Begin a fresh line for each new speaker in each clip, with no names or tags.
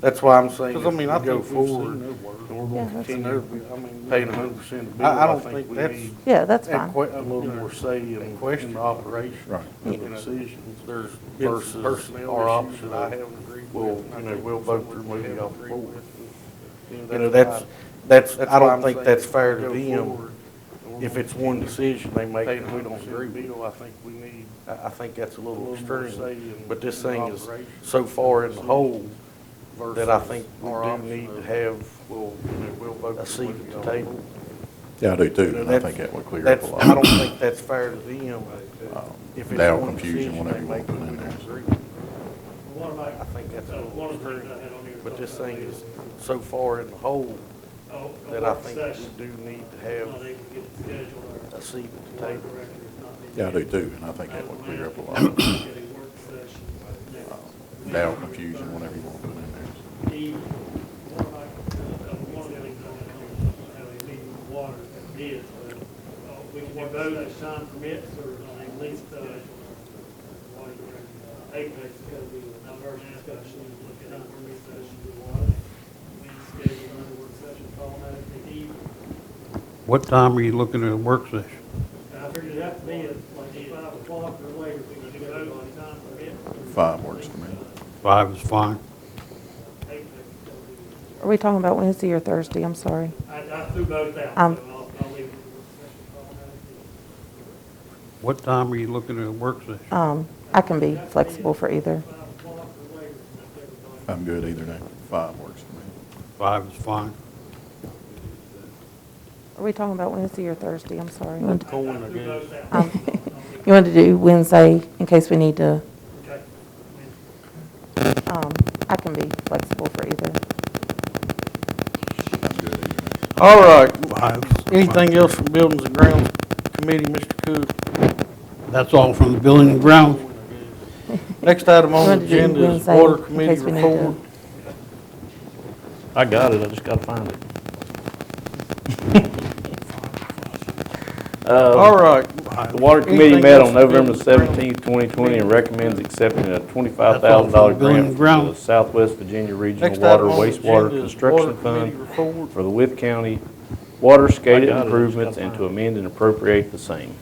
That's why I'm saying,
Because I mean, I
if we go
think we've seen
forward,
their work.
and we're
Yeah,
gonna
that's
continue
I mean,
paying
we-
hundred percent of the bill,
I- I
I
don't
think
think
we
that's-
need
Yeah, that's
a
fine.
que- a little more say in, in the operation.
Right.
And decisions
There's
versus
been personnel
our
issues
option
that I
of,
haven't agreed with.
well,
and I
you know,
think
we'll
some
vote to
we
remove it
haven't
off the
agreed
board.
with, and,
You know, that's, that's, I
why I'm
don't think
saying
that's
if we
fair to
go
them.
forward, and we're
If
gonna
it's one decision they make
Paying
that we
hundred
don't
percent
agree
of the
with,
bill, I think we need
I, I think that's a
a
little
little more say
extreme.
in.
But this
in
thing is
operation
so far in the hole
versus
that I think we
our
do
option
need to
of,
have
We'll, you know, we'll vote.
a
to
seat
remove
at
it
the
off
table.
board.
Yeah, I do too, and I
That's-
think that would clear up a
That's,
lot.
I don't think that's fair to them. If it's
That'll
one
confuse you
decision
whenever
they
you wanna
make
put
that
it
we
in there.
don't agree with.
One of my,
I think that's a
uh,
little
one of the things
extreme.
I had on here.
But this thing is so far in the hole
Oh, a
that I
work
think
session.
we do need to
No,
have
they can get scheduled or
a seat at the
board
table.
director is not Oh, being
Yeah, I do
scheduled.
too, and I think that would clear up a
Get
lot.
a work session next week.
That'll confuse you whenever you want to put it in there.
The- one of my, uh, one of the things I had on here, was how they meet with water and bids, but, uh, we can do both as time permits or at least, uh, water director, uh, APEX is gonna be a diverse discussion, look at our work session with water. We schedule another work session, call that at the eve.
What time are you looking at a work session?
I figured it out to be at like five o'clock or later, we can do it on time for it.
Five works for
Uh,
me.
Five is fine.
Are we talking about Wednesday or Thursday? I'm sorry.
I, I threw both out,
Um,
so I'll, I'll leave it. for
What time are you looking at a work session?
Um, I can be flexible for either.
Five o'clock or later, if everybody-
I'm good either day. Five works for me.
Five is fine.
Are we talking about Wednesday or Thursday? I'm sorry.
That's going
I threw
against.
both out.
Um, You want to do Wednesday in case we need to,
Okay.
um, I can be flexible for either.
I'm good either day.
All right,
Five is fine.
anything else from Buildings and Grounds Committee, Mr. Cook?
That's all from the building and grounds.
Next item on
Wanted
the
to do
agenda is
Wednesday
Water
in
Committee
case we need to-
report.
I got it, I just gotta find it.
All right,
The Water Committee
Anything
met
else
on
to
November
do with-
seventeenth, twenty twenty, and recommends accepting a twenty-five thousand dollar
Building and
grant from the
Grounds.
Southwest Virginia Regional
next item
Water
on the agenda
Wastewater
is Water
Construction
Committee
Fund
report.
for the With County waterscape I got it, I just improvements gotta and to find amend and appropriate the same.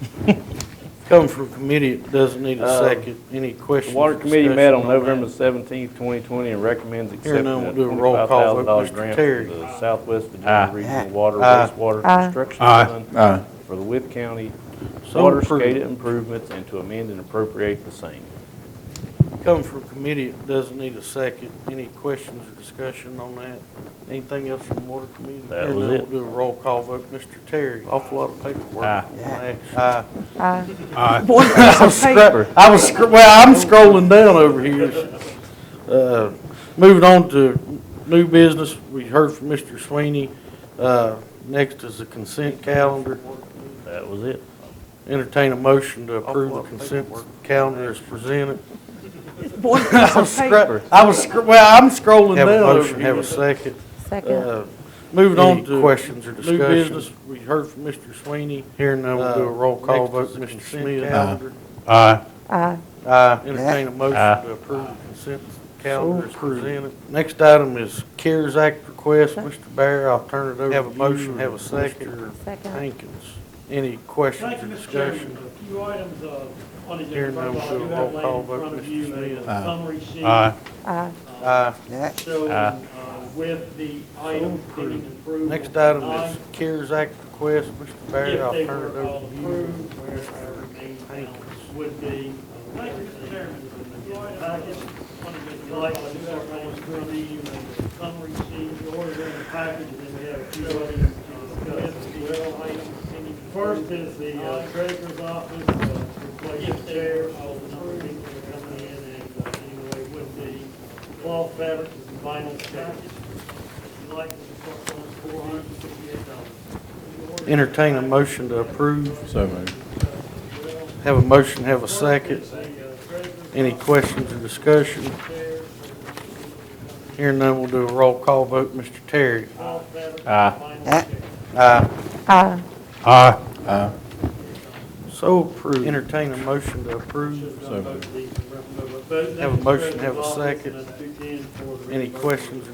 Come from committee, it doesn't need a
Um,
second. Any
The
questions?
Water Committee
discussion
met on
that?
November seventeenth, twenty twenty, and recommends
Here
accepting
now,
a
we'll do a roll
twenty-five
call
thousand
vote.
dollar
Mr.
grant
Terry.
from the Southwest Aye. Virginia Regional Water
Aye.
Wastewater
Aye.
Construction
Aye.
Fund
Aye.
for the With County
So
waterscape
approved.
improvements and to amend and appropriate the same.
Come from committee, it doesn't need a second. Any questions or discussion on that? Anything else from Water Committee?
That
Here
was
now,
it.
We'll do a roll call vote. Mr. Terry, awful lot of paperwork.
Aye.
on action. Aye.
Aye.
Aye.
I was scro- I was, scro- well, I'm scrolling down over here. Uh, Moving on to new business, we heard from Mr. Sweeney. Uh, Next is the consent calendar.
That was it.
Entertain a motion to approve the consent calendar as presented. I was scro- I was, scro- well, I'm scrolling down
Have a
over
motion,
here.
have a
second.
Uh,
Second.
Moving on
Any
to.
questions or
New
discussion?
business, we heard from Mr. Sweeney.
Here and now, we'll do a roll call vote, Mr. Uh, Smith.
Calendar.
Aye.
Aye.
Aye.
Entertain a motion
Aye.
to approve the consent calendar as
So approved.
presented. Next item is CARES Act request.
Okay.
Mr. Bear, I'll turn it over to you.
Have a motion, have a
and
second.
Mr.
Second.
Hankins, any questions
Thank
or
you, Mr. Chairman.
discussion?
A few items, uh, on the
Here,
agenda.
no,
First of all,
we'll
I do
roll
have laid
call
in
vote,
front of
Mr.
you a
Smith.
Aye.
Summary sheet. uh,
Aye.
Aye.
Aye.
showing,
Aye.
uh, with the items pending approval.
Next item
tonight.
is CARES Act request. Mr.
If
Bear, I'll
they
turn it
were all
over to you.
approved, where our remaining balance would be. Thank you, Mr. Chairman. Like, I do have one for the summary sheet, the order in the package, and then we have a few other uh, discuss as well. Items. First is the uh, treasurer's office, uh, replace the chair, all the number of people that are coming in, and uh, anyway, would be cloth fabrics and vinyl package. If you like, it's four hundred and fifty-eight dollars.
Entertain a motion to approve.
So moved.
Have a motion, have a second. Any
Any
questions or discussion? Here and then we'll do a roll call vote. Mr. Terry? Aye.
Aye.
Aye.
Aye.
So approved. Entertain a motion to approve.
So moved.
both
Have a motion, have a
treasurer's office and
second.
a 210 for the
Any
reimbursement.
questions or